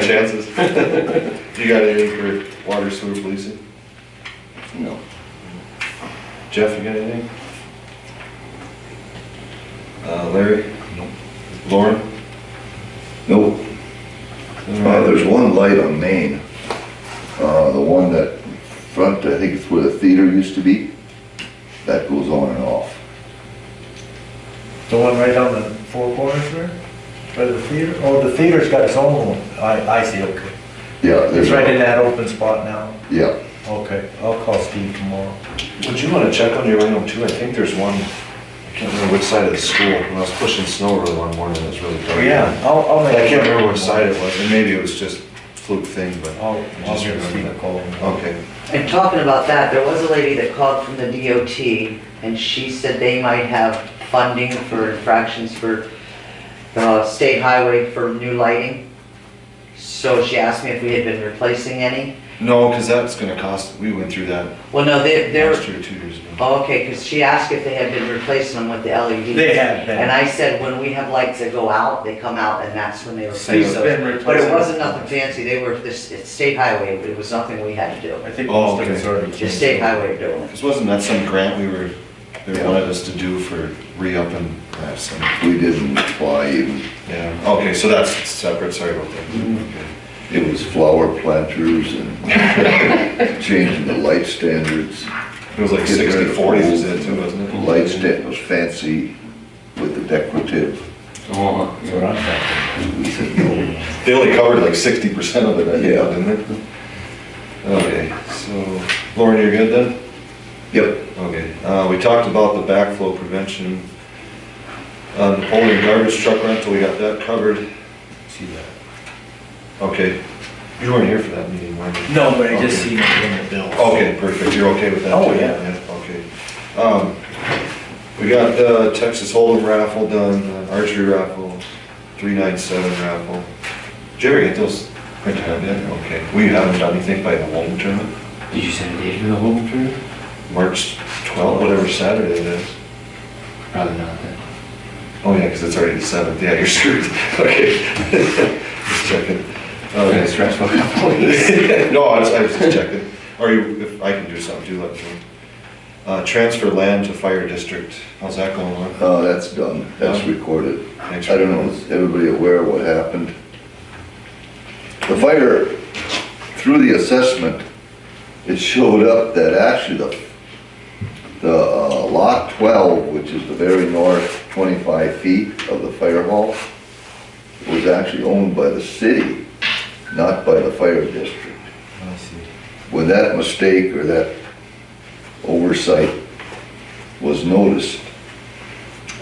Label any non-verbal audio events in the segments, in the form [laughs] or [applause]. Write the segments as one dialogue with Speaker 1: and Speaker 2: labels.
Speaker 1: chances. You got anything for water sewer policing?
Speaker 2: No.
Speaker 1: Jeff, you got anything? Uh, Larry?
Speaker 3: Nope.
Speaker 1: Lauren?
Speaker 2: Nope. Uh, there's one light on Main. Uh, the one that front, I think it's where the theater used to be. That goes on and off.
Speaker 4: The one right down the four corners there? By the theater? Oh, the theater's got its own one. I, I see, okay.
Speaker 2: Yeah, there's.
Speaker 4: It's right in that open spot now.
Speaker 2: Yeah,
Speaker 4: Okay, I'll call Steve tomorrow.
Speaker 1: Would you wanna check on your item too? I think there's one, I can't remember which side of the school, when I was pushing snow really one morning, it was really dark.
Speaker 4: I'll, I'll
Speaker 1: I
Speaker 4: make.
Speaker 1: can't remember which side it was, and maybe it was just fluke thing, but,
Speaker 4: I'll, I'll
Speaker 1: Just
Speaker 4: give
Speaker 1: remember
Speaker 4: Steve a
Speaker 1: that.
Speaker 4: call.
Speaker 1: okay.
Speaker 5: And talking about that, there was a lady that called from the DOT, and she said they might have funding for infractions for the state highway for new lighting. So she asked me if we had been replacing any.
Speaker 1: No, cause that's gonna cost, we went through that
Speaker 5: Well, no, they,
Speaker 1: last
Speaker 5: they're,
Speaker 1: year, two years ago.
Speaker 5: oh, okay, because she asked if they had been replacing them with the LEDs.
Speaker 4: They have been.
Speaker 5: And I said, when we have lights that go out, they come out, and that's when they replace
Speaker 4: Steve's
Speaker 5: those.
Speaker 4: been replacing.
Speaker 5: But it wasn't nothing fancy, they were, this, it's state highway, it was nothing we had to do.
Speaker 4: I think
Speaker 1: Oh,
Speaker 4: most of it's
Speaker 1: okay.
Speaker 4: already.
Speaker 5: Just state highway doing it.
Speaker 1: Cause wasn't that some grant we were, they
Speaker 2: Yeah.
Speaker 1: wanted us to do for re-upping that, so,
Speaker 2: we didn't fly even.
Speaker 1: yeah, okay, so that's separate, sorry about that. Okay.
Speaker 2: It was flower planters and
Speaker 4: [laughs]
Speaker 2: changing the light standards.
Speaker 1: It was like sixty forty was it too, wasn't it?
Speaker 2: Light stand was fancy with the decorative.
Speaker 4: That's what I'm thinking.
Speaker 2: We said no.
Speaker 1: They only covered like sixty percent of it, I think,
Speaker 2: Yeah.
Speaker 1: didn't they? Okay, so, Lauren, you're good then?
Speaker 2: Yep,
Speaker 1: Okay, uh, we talked about the backflow prevention. Uh, Napoleon garbage truck rental, we got that covered.
Speaker 3: See that?
Speaker 1: Okay, you weren't here for that meeting, were you?
Speaker 4: No, but I just
Speaker 1: Okay.
Speaker 4: seen it in the bill.
Speaker 1: Okay, perfect, you're okay with that?
Speaker 4: Oh,
Speaker 1: too?
Speaker 4: yeah.
Speaker 1: Okay. Um, we got the Texas Hold'em raffle done, uh, archery raffle, three nine seven raffle. Jerry, get those printed out yet? Okay, we haven't done anything by the home tournament,
Speaker 3: Did you send a date for the whole tour?
Speaker 1: March twelfth, whatever Saturday it is.
Speaker 3: Probably not then.
Speaker 1: Oh, yeah, because it's already the seventh, yeah, you're screwed, [laughs] okay. Just checking.
Speaker 3: Okay,
Speaker 1: Okay.
Speaker 3: stressful [laughs] couple of
Speaker 1: [laughs]
Speaker 3: weeks.
Speaker 1: No, I was, I was just checking, or you, if I can do something, do let me know. Uh, transfer land to fire district, how's that going on?
Speaker 2: uh, that's done, that's recorded.
Speaker 1: Thanks for-
Speaker 2: I don't know, is everybody aware of what happened? The fire, through the assessment, it showed up that actually the, the uh, lot twelve, which is the very north twenty-five feet of the fire hall, was actually owned by the city, not by the fire district.
Speaker 3: I see.
Speaker 2: When that mistake or that oversight was noticed,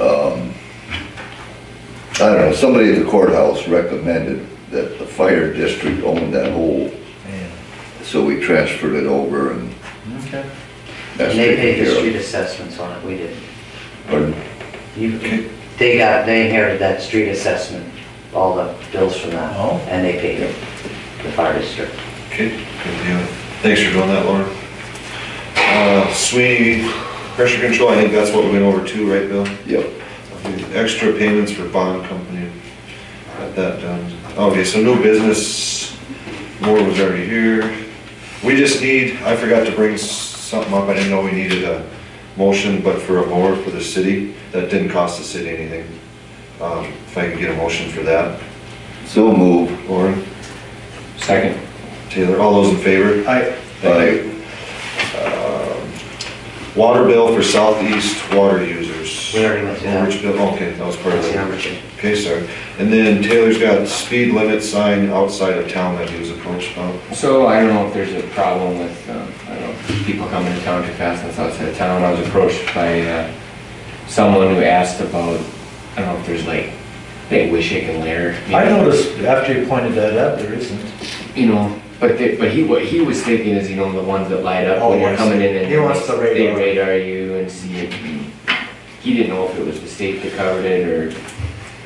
Speaker 2: um, I don't know, somebody at the courthouse recommended that the fire district owned that whole,
Speaker 4: Yeah.
Speaker 2: so we transferred it over and
Speaker 4: Okay.
Speaker 2: that's
Speaker 5: And they paid
Speaker 2: taken
Speaker 5: the
Speaker 2: care
Speaker 5: street
Speaker 2: of.
Speaker 5: assessments on it, we didn't.
Speaker 2: Pardon?
Speaker 5: You- They got, they inherited that street assessment, all the bills from that,
Speaker 4: Oh.
Speaker 5: and they paid it, the fire district.
Speaker 1: Okay, good deal. Thanks for doing that, Lauren. Uh, Sweeney, pressure control, I think that's what we went over too, right, Bill?
Speaker 2: Yep,
Speaker 1: Extra payments for bond company, got that done. Okay, so no business, More was already here. We just need, I forgot to bring s- something up, I didn't know we needed a motion, but for a mower for the city, that didn't cost the city anything. Um, If I could get a motion for that,
Speaker 2: so move.
Speaker 1: Lauren,
Speaker 3: Second.
Speaker 1: Taylor, all those in favor?
Speaker 4: I,
Speaker 1: Thank you. Um, Water bill for southeast water users.
Speaker 5: We already went through that.
Speaker 1: Overage bill, okay, that was part of
Speaker 5: That's the
Speaker 1: it.
Speaker 5: number two.
Speaker 1: Okay, sorry. And then Taylor's got speed limit sign outside of town that he was approached about.
Speaker 3: So I don't know if there's a problem with, um, I don't know, people coming to town too fast that's outside of town. I was approached by uh, someone who asked about, I don't know if there's like, they wish it can layer. you
Speaker 4: I
Speaker 3: know?
Speaker 4: noticed after you pointed that out, there isn't.
Speaker 3: You know, but they, but he, what he was thinking is, you know, the ones that light up
Speaker 4: Oh,
Speaker 3: when you're
Speaker 4: yes.
Speaker 3: coming in and.
Speaker 4: He wants the radar.
Speaker 3: They radar you and see it. He didn't know if it was the state that covered it or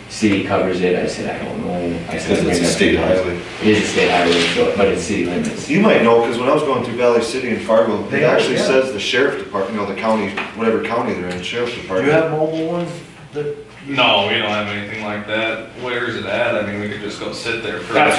Speaker 3: city covers it. I said, I don't know. I said,
Speaker 1: Because it's a state highway.
Speaker 3: It is a state highway, so- but it's city limits.
Speaker 1: You might know, because when I was going through Valley City and Fargo, it
Speaker 4: They are,
Speaker 1: actually
Speaker 4: yeah.
Speaker 1: says the sheriff department, you know, the county, whatever county they're in, sheriff's
Speaker 4: Do
Speaker 1: department.
Speaker 4: you have mobile ones that
Speaker 6: No, we don't have anything like that. Where is it at? I mean, we could just go sit there for.
Speaker 3: That's